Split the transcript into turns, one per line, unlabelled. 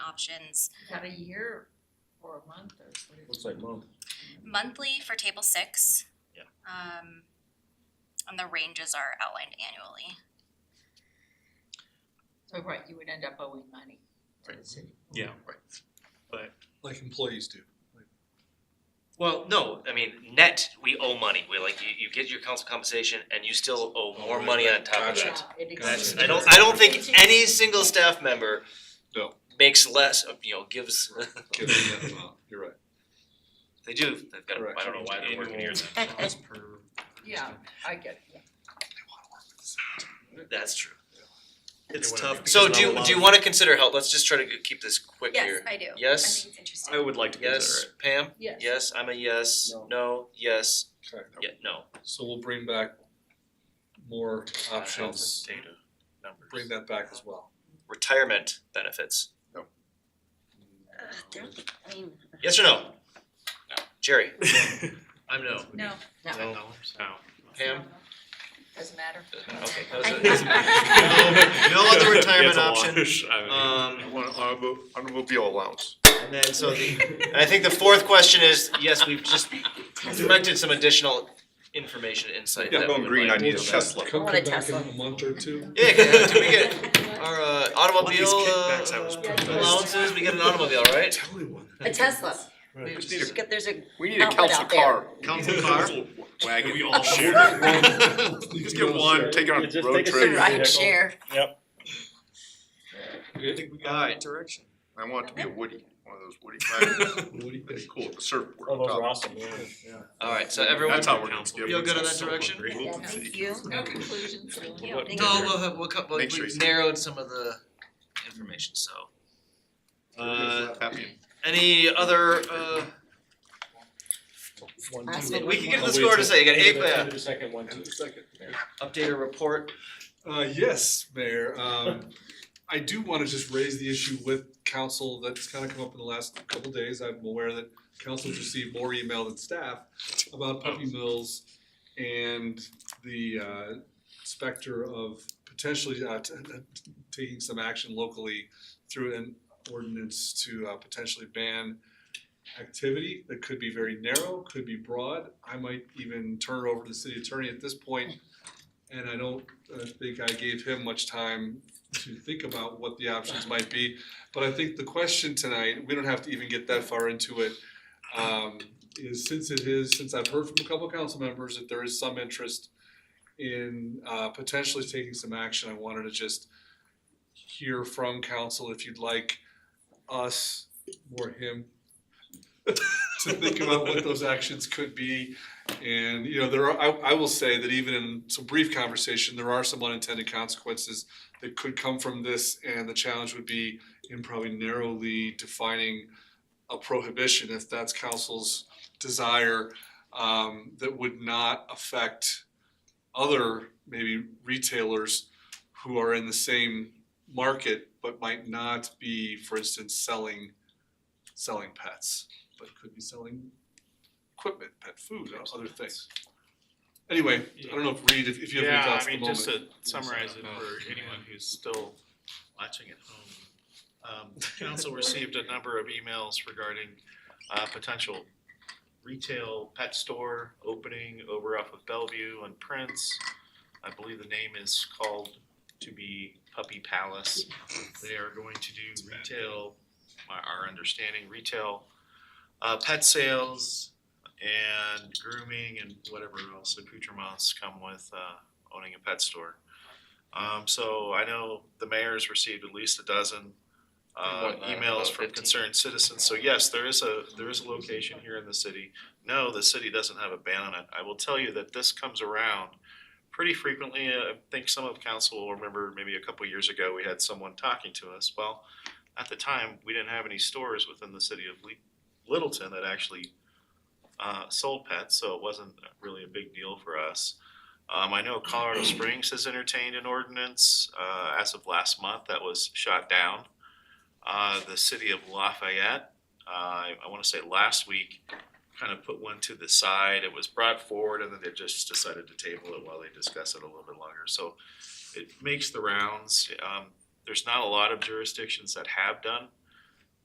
options.
Got a year or a month or what is
Looks like month.
Monthly for table six.
Yeah.
Um, and the ranges are outlined annually.
So right, you would end up owing money to the city.
Yeah,
Like employees do.
well, no, I mean, net, we owe money, we like, you, you get your council compensation and you still owe more money on top of that.
Yeah, it
That's,
exists.
I don't, I don't think any single staff member
No.
makes less, of you know, gives,
Give them that amount. You're right.
they do, they've got, I don't know why they're working here,
Yeah, I get it, yeah.
that's true.
It's tough.
So do, you- do you wanna consider help, let's just try to keep this quick here.
I do.
Yes?
it's interesting.
I would like to
Yes,
consider
Pam?
Yes.
Yes, I'm a yes,
No.
no, yes,
Okay.
yeah, no.
So we'll bring back more options,
Data, numbers.
bring that back as well.
Retirement benefits, Uh,
I mean,
yes or no? Jerry?
it.
I'm no.
No.
No. No.
Pam?
Doesn't matter.
Okay, that was
I-
it. No other retirement option. Um,
Automobile allowance.
and then so the, and I think the fourth question is, yes, we've just directed some additional information insight
Yeah,
that
going
we would
green,
like
I need a
to-
Tesla.
Come
want a
come back in
Tesla.
a month or two.
Yeah, can, do we get our uh, automobile
kickbacks I was
uh,
promised.
allowances? We get an automobile, right?
Tell me one.
a Tesla.
We just need
There's a- there's a,
We need a
Outlet
council
out there.
car.
Council car?
Wagon.
We all share.
You Just get one, take it on
Yeah,
a
just
road
take a
the
trip.
survey.
ride share.
I think we got it. Direction.
I want it to be a Woody, one of those Woody wagons.
What do you
That'd be
think?
cool, the surfboard
Oh,
on
those are
top.
awesome, yeah.
All right, so everyone,
That's how we're gonna
Council.
get
Feel good in
it.
that direction?
Great.
Thank you.
No conclusions, so
you.
we'll-
Thank
no, we'll have, we'll cut,
Make sure
we've
you-
narrowed some of the information. So, uh,
Happy.
any other? Uh,
One,
Awesome.
two.
we can get to the
Wait,
score in a second. You got
wait,
eight.
wait,
uh,
wait a second, one, two.
Second.
Update or report.
Uh, yes, Mayor, um, I do wanna just raise the issue with council that's kinda come up in the last couple days, I'm aware that council's received more email than staff about puppy mills and the, uh, specter of potentially, uh, t- t- taking some action locally through an ordinance to, uh, potentially ban activity that could be very narrow, could be broad, I might even turn it over to the city attorney at this point, and I don't I think I gave him much time to think about what the options might be. But I think the question tonight, we don't have to even get that far into it, um, is since it is, since I've heard from a couple of council members that there is some interest in, uh, potentially taking some action, I wanted to just hear from council if you'd like us or him to think about what those actions could be. And, you know, there are, I, I will say that even in some brief conversation, there are some unintended consequences that could come from this, and the challenge would be in probably narrowly defining a prohibition, if that's council's desire, um, that would not affect other maybe retailers who are in the same market, but might not be, for instance, selling, selling pets, but could be selling equipment, pet food, or other things. Anyway, I don't know if Reed, if if you have any
Yeah,
thoughts
I
at the
mean,
moment.
just to summarize it for anyone who's still watching at home. Um, council received a number of emails regarding, uh, potential retail pet store opening over off of Bellevue and Prince. I believe the name is called to be Puppy Palace. They are going to do retail, my, our understanding, retail, uh, pet sales and grooming and whatever else accoutrements come with, uh, owning a pet store. Um, so I know the mayor's received at least a dozen uh,
More than that, about
emails from
15.
concerned citizens. So yes, there is a, there is a location here in the city. No, the city doesn't have a ban on it. I will tell you that this comes around pretty frequently. Uh, I think some of council will remember maybe a couple years ago, we had someone talking to us. Well, at the time, we didn't have any stores within the city of Lee- Littleton that actually uh, sold pets, so it wasn't really a big deal for us. Um, I know Colorado Springs has entertained an ordinance, uh, as of last month that was shot down. Uh, the city of Lafayette, uh, I, I wanna say last week, kind of put one to the side. It was brought forward and then they just decided to table it while they discuss it a little bit longer. So it makes the rounds. Um, there's not a lot of jurisdictions that have done